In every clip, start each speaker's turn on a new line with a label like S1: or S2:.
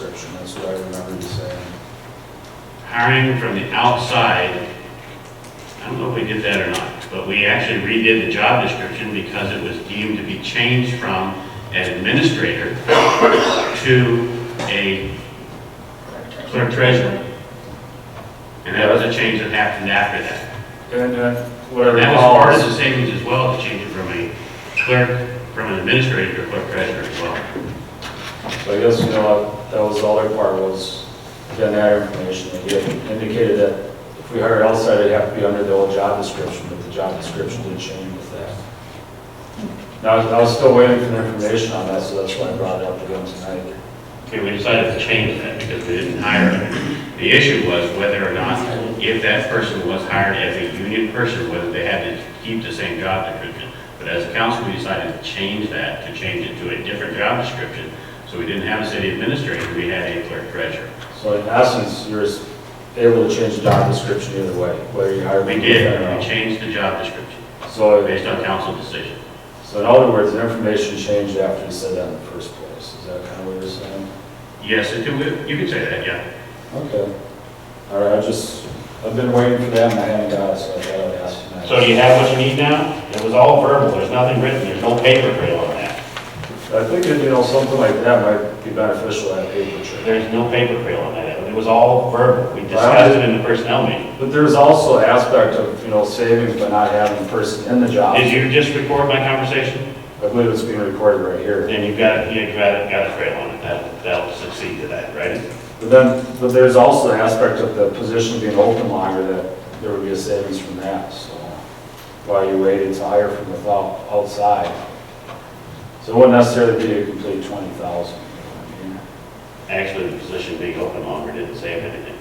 S1: description, that's what I remember you saying.
S2: hiring from the outside, I don't know if we did that or not, but we actually redid the job description because it was deemed to be changed from an administrator to a clerk treasurer. And that was a change that happened after that.
S3: And uh, what I
S2: But That was part of
S3: recall,
S2: the savings as well, to change it from a clerk, from an administrator to a clerk treasurer as well.
S3: so I guess, you know, that was all their part was, getting that information. They had indicated that if we hired outside, it'd have to be under the old job description, but the job description did change with that. Now, I was still waiting for the information on that, so that's why I brought it up again tonight.
S2: Okay, we decided to change that because we didn't hire him. The issue was whether or not, if that person was hired as a union person, whether they had to keep the same job description. But as a council, we decided to change that, to change it to a different job description. So we didn't have a city administrator, we had a clerk treasurer.
S3: So in essence, you're able to change the job description either way, whether you hire.
S2: We did, uh, we changed the job description
S3: So
S2: based on council decision.
S3: So in other words, the information changed after you said that in the first place, is that kind of what you're saying?
S2: Yes, it could- you could say that, yeah.
S3: Okay. All right, I just, I've been waiting for that and I haven't got it, so I thought I'd ask you. now.
S2: So you have what you need now? It was all verbal, there's nothing written, there's no paper trail on that.
S3: I think, that, you know, something like that might be beneficial at paper trade.
S2: There's no paper trail on that, it was all verbal, we
S3: discussed
S2: it in the personnel meeting.
S3: But there's also an aspect of, you know, savings by not having a person in the job.
S2: Did you just record my conversation?
S3: I believe it's being recorded right here.
S2: Then you've got, you've got, got a trail on it, that, that'll succeed to that, right?
S3: But then, but there's also the aspect of the position being open longer that there would be a savings from that, so. While you waited to hire from without, outside. So it wouldn't necessarily be a complete twenty thousand.
S2: Actually, the position being open longer didn't save anything.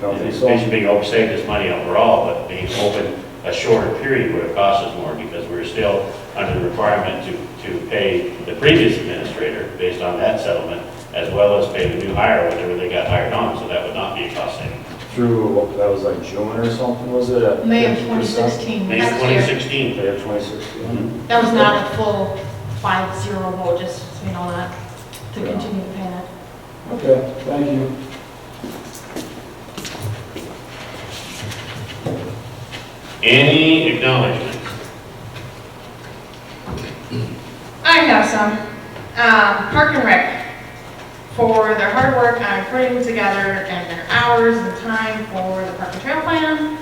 S3: Don't
S2: The
S3: think so?
S2: position being open saved us money overall, but being open a shorter period would have cost us more because we're still under the requirement to, to pay the previous administrator based on that settlement, as well as pay the new hire, whatever they got hired on, so that would not be a cost saving.
S3: Through, what, that was like June or something, was it? at
S4: May of
S3: 50%?
S4: 2016,
S2: May
S4: next year.
S2: 2016,
S3: May of twenty sixteen.
S4: That was not a full five zero vote, just, so you know, that, to
S3: Yeah.
S4: continue paying it.
S3: Okay, thank you.
S2: Any acknowledgements?
S4: I have some. Um, Park and Rec, for their hard work on putting together and their hours and time for the park and trail plan.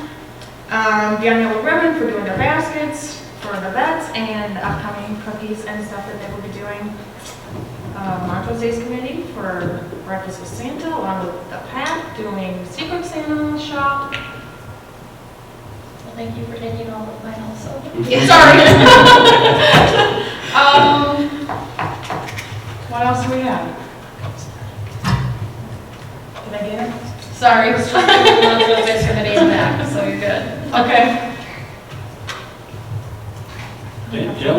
S4: Um, Beyond Yellow Ribbon for doing their baskets for the vets and upcoming cookies and stuff that they will be doing. Uh, Montrose Days Committee for breakfast with Santa, along with the Pat doing Secret Santa shop.
S5: Well, Thank you for taking all of mine also.
S4: Sorry. Um, what else do we have? Did I get it?
S5: Sorry, it's just the one little bit's gonna name back, so you're good.
S4: Okay.
S2: Hey, Jill,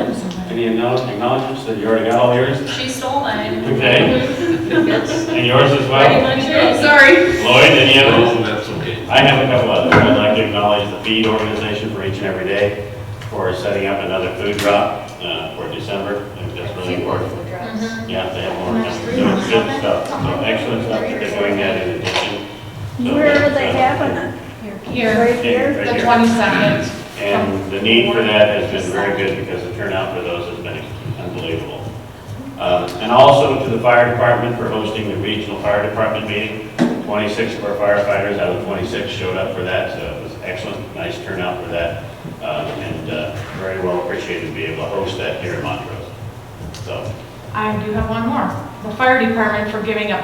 S2: any acknowledge- acknowledgements that you already got all yours?
S5: She stole mine.
S2: Okay. And yours as
S5: Pretty
S2: well? oh,
S5: much, it. sorry.
S2: Lloyd, any others?
S6: Oh, that's okay.
S2: I have a couple others. I'd like to acknowledge the feed organization for each and every day for setting up another food drop uh, for December. I think that's really important.
S5: Mm-hmm.
S4: Mhm.
S2: Yeah, they have more, so it's good stuff. So excellent stuff that they're doing that in addition. So
S7: Where are
S2: that's,
S7: they
S2: uh,
S7: having it?
S4: Here.
S7: Right
S2: yeah,
S7: here?
S2: right
S4: The
S2: here.
S4: twenty-second.
S2: And the need for that has been very good because the turnout for those has been unbelievable. Um, And also to the fire department for hosting the regional fire department meeting. 26 of our firefighters out of 26 showed up for that, so it was excellent, nice turnout for that. Um, And uh, very well appreciated to be able to host that here in Montrose. So,
S4: I do have one more. The fire department for giving up,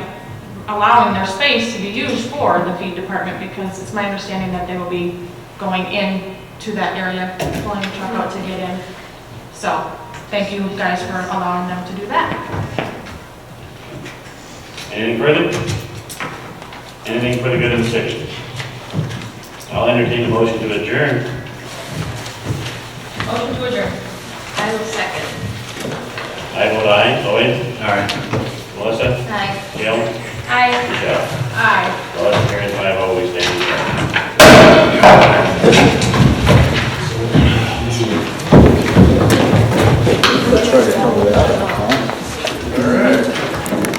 S4: allowing their space to be used for the feed department because it's my understanding that they will be going in to that area, pulling the truck out to get in. So, thank you guys for allowing them to do that.
S2: anything further? Anything for the good of the city? I'll entertain the motion to adjourn.
S5: Motion to adjourn. I will second.
S2: I vote aye. Lloyd? Aye. Melissa?
S5: Aye.
S2: Gail?
S5: Aye.
S2: Michelle?
S4: Aye.
S2: Motion carries